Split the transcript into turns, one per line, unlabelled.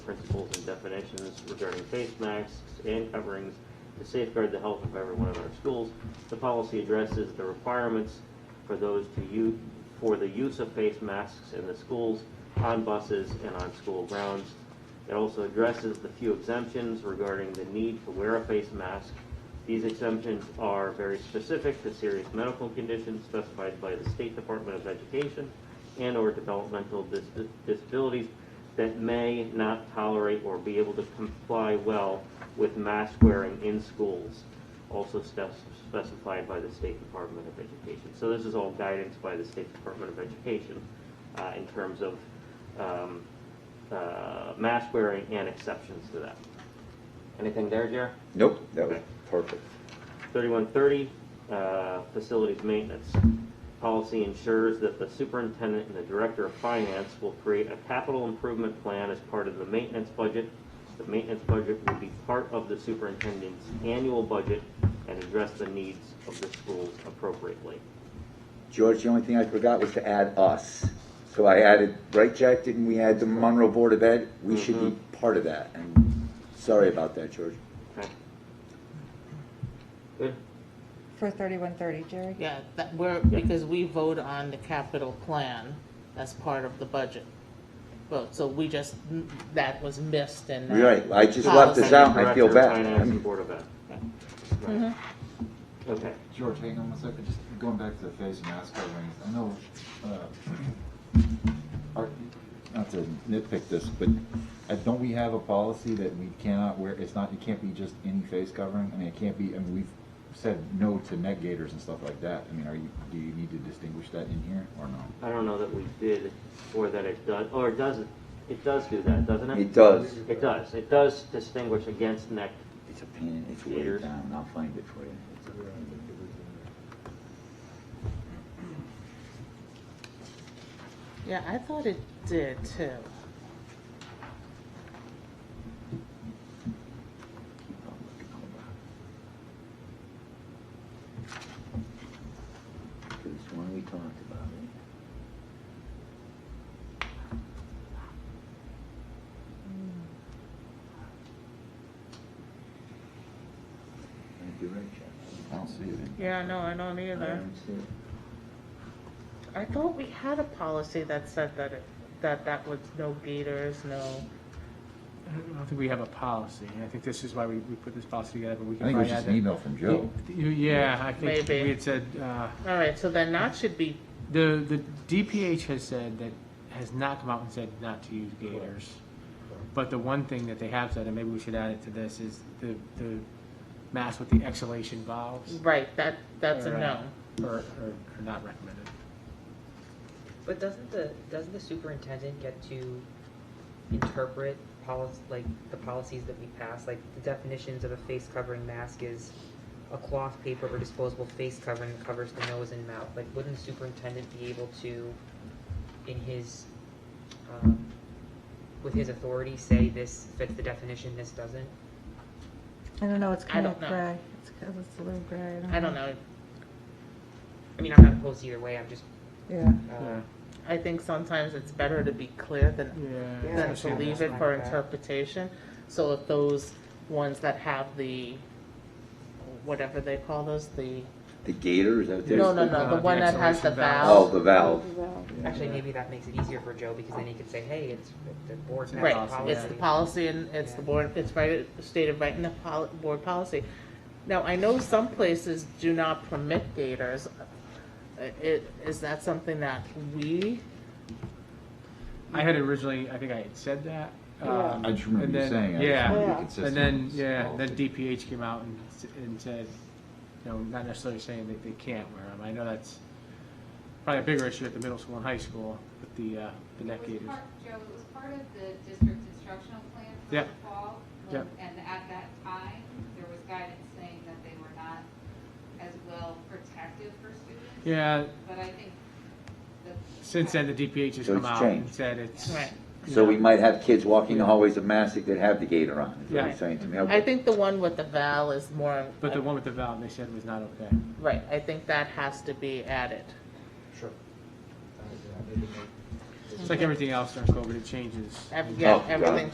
principles and definitions regarding face masks and coverings to safeguard the health of every one of our schools. The policy addresses the requirements for those to u, for the use of face masks in the schools, on buses, and on school grounds. It also addresses the few exemptions regarding the need to wear a face mask. These exemptions are very specific to serious medical conditions specified by the State Department of Education and/or developmental dis- disabilities that may not tolerate or be able to comply well with mask wearing in schools, also steps specified by the State Department of Education. So this is all guidance by the State Department of Education uh, in terms of um, uh, mask wearing and exceptions to that. Anything there, Jer?
Nope, that was perfect.
3130, uh, facilities maintenance. Policy ensures that the superintendent and the director of finance will create a capital improvement plan as part of the maintenance budget. The maintenance budget will be part of the superintendent's annual budget and address the needs of the schools appropriately.
George, the only thing I forgot was to add us. So I added, right, Mm-hmm. Jack, didn't we add the Monroe Board of Ed? We should be part of that, and sorry about that, George.
Okay? Good?
For thirty-one thirty, Jerry?
Yeah, that, we're,
Yeah.
because we vote on the capital plan as part of the budget. Vote, so we just, that was missed and. that-
Right, I just left this out, and I feel
Director of
bad.
Finance
I
and
mean,
Board of Ed. Right. Okay.
George, hang on one second, just going back to the face mask coverings, I know, uh, our- not to nitpick this, but uh, don't we have a policy that we cannot wear, it's not, it can't be just any face covering? I mean, it can't be, I mean, we've said no to neck gaiters and stuff like that. I mean, are you, do you need to distinguish that in here or no?
I don't know that we did, or that it does, or it doesn't, it does do that, doesn't it?
It does.
It does, it does distinguish against neck,
It's a pain, it's way
Ears.
down, I'll find it for you.
Yeah, I thought it did too.
This one we talked about, it. Thank you, Rich.
I don't see it.
Yeah, no, I don't
I don't see it.
I thought we had a policy that said that it, that that was no gators, no.
I don't think we have a policy, and I think this is why we, we put this policy together, but we
I
can
think it was
probably
just
add
an
that.
email from Joe.
You- Yeah, I think
Maybe.
we had said, uh,
All right, so then that should be,
the, the DPH has said that, has not come out and said not to use gators. But the one thing that they have said, and maybe we should add it to this, is the, the mask with the exhalation valves.
right, that, that's a
are, uh,
no.
Are, are are not recommended.
But doesn't the, doesn't the superintendent get to interpret policy, like, the policies that we pass? Like, the definitions of a face covering mask is a cloth, paper, or disposable face covering that covers the nose and mouth. Like, wouldn't the superintendent be able to, in his, um, with his authority, say this fits the definition, this doesn't?
I don't know, it's kind of
don't know.
gray. It's, kind of- it's a little gray.
I don't know,
I mean, I'm not opposed either way, I'm just,
Yeah.
uh,
I think sometimes it's better to be clear than
Yeah.
than
so
to leave
that's
it for
like that.
interpretation. So if those ones that have the, whatever they call those, the,
The gator, is that what they're?
no, no, no, the
the
one that has the
exhalation valve.
Oh,
valve.
the valve.
actually, maybe that makes it easier for Joe, because then he could say, hey, it's the board.
It's
Right,
the policy,
it's the policy and it's the board, it's right, stated right in the pol- board policy. Now, I know some places do not permit gators. Uh, It, is that something that we,
I had originally, I think I had said that. um,
I just remember
and
you
then-
saying, I just
Yeah.
wanted to be consistent.
And then,
with this
yeah, then
policy.
DPH came out and, s- and said, you know, not necessarily saying that they can't wear them. I know that's probably a bigger issue at the middle school and high school with the, uh, the neck
It was
gaiters.
part- Joe, it was part of the district's instructional plan for
Yeah.
the fall.
Yeah.
And at that time, there was guidance saying that they were not as well protective for students.
Yeah,
But I think the.
since then, the DPH has
So
come
it's
out and
changed.
said it's,
right?
So we might have kids walking the hallways of Massac that have the gator on, is what
Yeah.
you're saying to me.
I think the one with the valve is more.
but the one with the valve, they said was not okay.
Right, I think that has to be added.
It's like everything else during COVID, it changes.
Ev- Yeah,
Oh, got it.
everything